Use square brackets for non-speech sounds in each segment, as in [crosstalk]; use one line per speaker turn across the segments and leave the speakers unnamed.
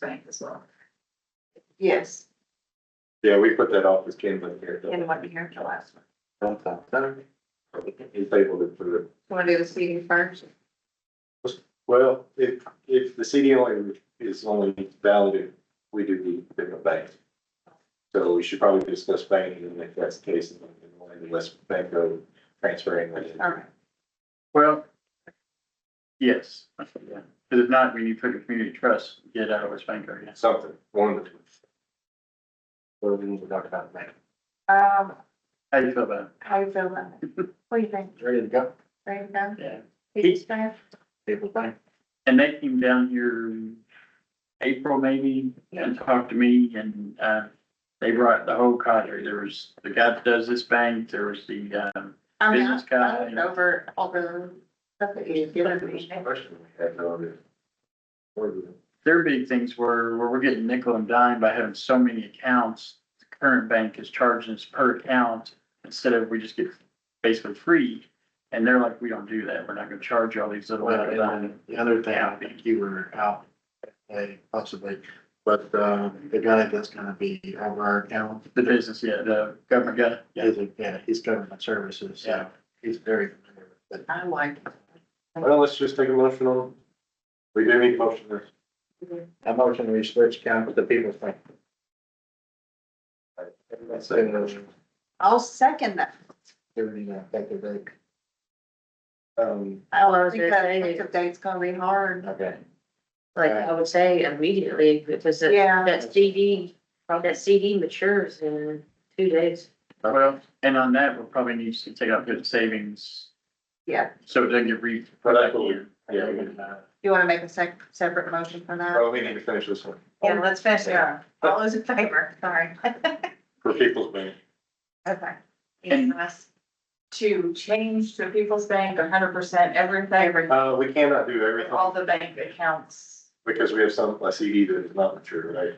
bank as well.
Yes,
Yeah, we put that off as Kenwood here.
in one year, the last one.
He's able to put it.
You wanna do the CD first?
Well, if, if the CD only is only valid, if we do need to pick a bank. So we should probably discuss banking and if that's the case, then we'll end less bank go transferring. money.
Alright.
Well, yes, because if not, we need to put a community trust, get out of West Bank area.
Something, one of the two.
Well, we need to talk about that.
Um,
How do you feel about
how you feel about [laughs] it? What do you think?
Ready to go?
Ready to go?
it? Yeah.
Pete's back?
And they came down here in April maybe and talked to me and, uh, they brought the whole cadre. There was the guy that does this bank, there was the, um,
I mean,
Business
I- I looked
guy.
over, over stuff that you've given me.
Question we had, no, it- or the-
their big things were, where we're getting nickel and dime by having so many accounts. The current bank is charging us per account instead of we just get basically free. And they're like, we don't do that. We're not gonna charge you all these little.
Well, and then the other thing, I think you were out, today, possibly, but, um, the guy that's gonna be over our account.
The business, yeah, the government guy.
He's a, yeah, he's government services, so
Yeah.
he's very familiar with it.
I like it.
Well, let's just take a motion on. We do need a motion there.
I motion we switch account with the people's bank.
That's a motion.
So,
I'll second that.
they would need to take their break.
Um,
I
was
think
gonna
that
say-
effective date's gonna be hard.
Okay.
Like, I would say immediately, because that,
Yeah,
that CD, that CD matures in two days.
Well, and on that, we'll probably need to take out good savings,
yeah.
so it doesn't get re.
Well, that's what we- yeah, we-
Well,
You wanna make a sec, separate motion for that?
well, we need to finish this one
Yeah, let's finish it up. All those in favor, sorry. [laughs]
for people's bank.
Okay.
And-
To change to People's Bank hundred percent everything,
Uh, we cannot do everything
the bank accounts.
because we have some, a CD that is not mature, right?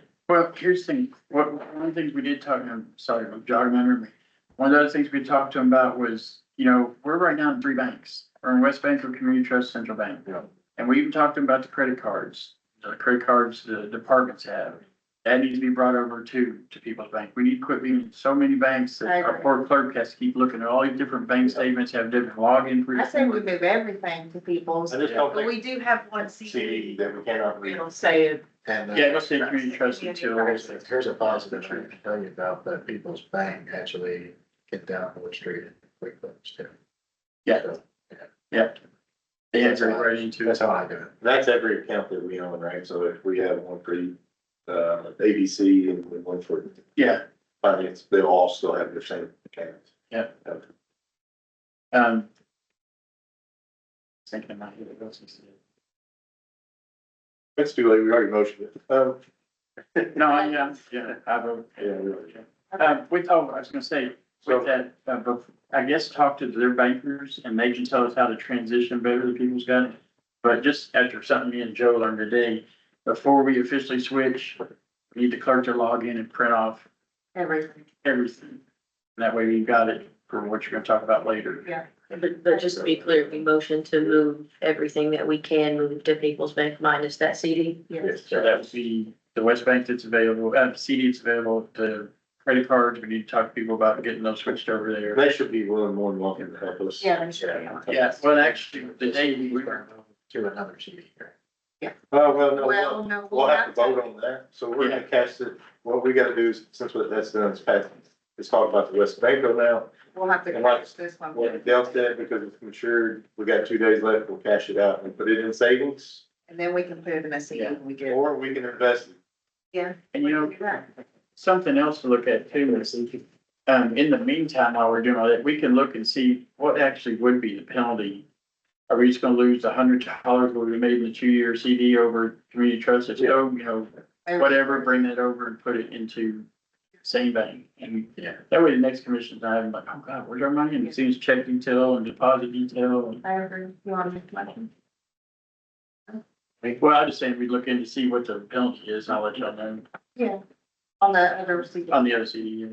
here's the thing, what, one of the things we did talk, I'm sorry, I'm jogging my memory. One of the other things we talked to him about was, you know, we're right now in three banks, we're in West Bank, or Community Trust, Central Bank.
Yeah.
And we even talked to him about the credit cards, the credit cards the departments have. That needs to be brought over to, to People's Bank. We need to quit being in so many banks
I
that
agree.
our poor clerk has to keep looking at all these different bank statements, have different login.
I say we move everything to People's,
I just don't
but
think
we do have one
CD
CD.
that we cannot read.
It'll say it.
And. uh,
Yeah, go say Community Trust until.
Here's, a- here's a positive I can tell you about, that People's Bank actually get down Wood Street and quick clips too.
Yeah. Yeah. They had to write into
That's
it.
how I do it.
That's every account that we own, right? So if we have one for, uh, ABC and one for
Yeah,
finance, they'll all still have their same accounts.
um. Thinking about it, what else is it?
It's too late, we already motioned it. Um,
[laughs] No, I, yeah, yeah, I vote.
Yeah, really.
Um, with, oh, I was gonna say, with
so,
that, uh, bef- I guess talk to their bankers and they can tell us how to transition better than people's got. But just after something me and Joe learned today, before we officially switch, we need the clerk to log in and print off
Everything,
everything. That way you've got it for what you're gonna talk about later.
yeah.
But, but just to be clear, we motion to move everything that we can move to People's Bank minus that CD.
yes,
So that would be the West Bank that's available, uh, CD that's available, the credit cards, we need to talk to people about getting those switched over there.
They should be willing, more than welcome to help us.
Yeah, they should be on.
Yeah, well, actually, the day we were,
To another CD here.
Oh, well, no,
Well,
we'll,
no,
we'll have to vote on that. So we're gonna cast it, what we gotta do is, since what that's done, is pass, it's talked about the West Banko now.
We'll have to
And like-
catch this one.
What Dell said, because it's matured, we got two days left, we'll cash it out and put it in savings,
And then we can put it in a CD when we get.
or we can invest it.
and you know,
We can do that.
something else to look at too is, um, in the meantime, while we're doing all that, we can look and see what actually would be the penalty. Are we just gonna lose a hundred dollars what we made in the two-year CD over community trust? If so, oh, you know,
Maybe-
whatever, bring that over and put it into same bank. And
Yeah.
that way the next commission's not having like, oh God, where's our money? And it seems check detail and deposit detail. and-
I agree, you wanna make the motion?
Well, I just saying we look in to see what the penalty is. and I'll let y'all know
Yeah. On the other CD,
on the other CD.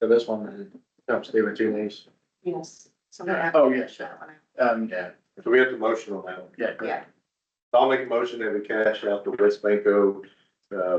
So this one uh, helps do with two days.
yes. So we have
Oh,
to
yeah.
catch that one out.
Um,
Yeah.
So we have to motion on that one.
yeah, go ahead.
Yeah,
I'll make a motion that we cash out the West Banko uh,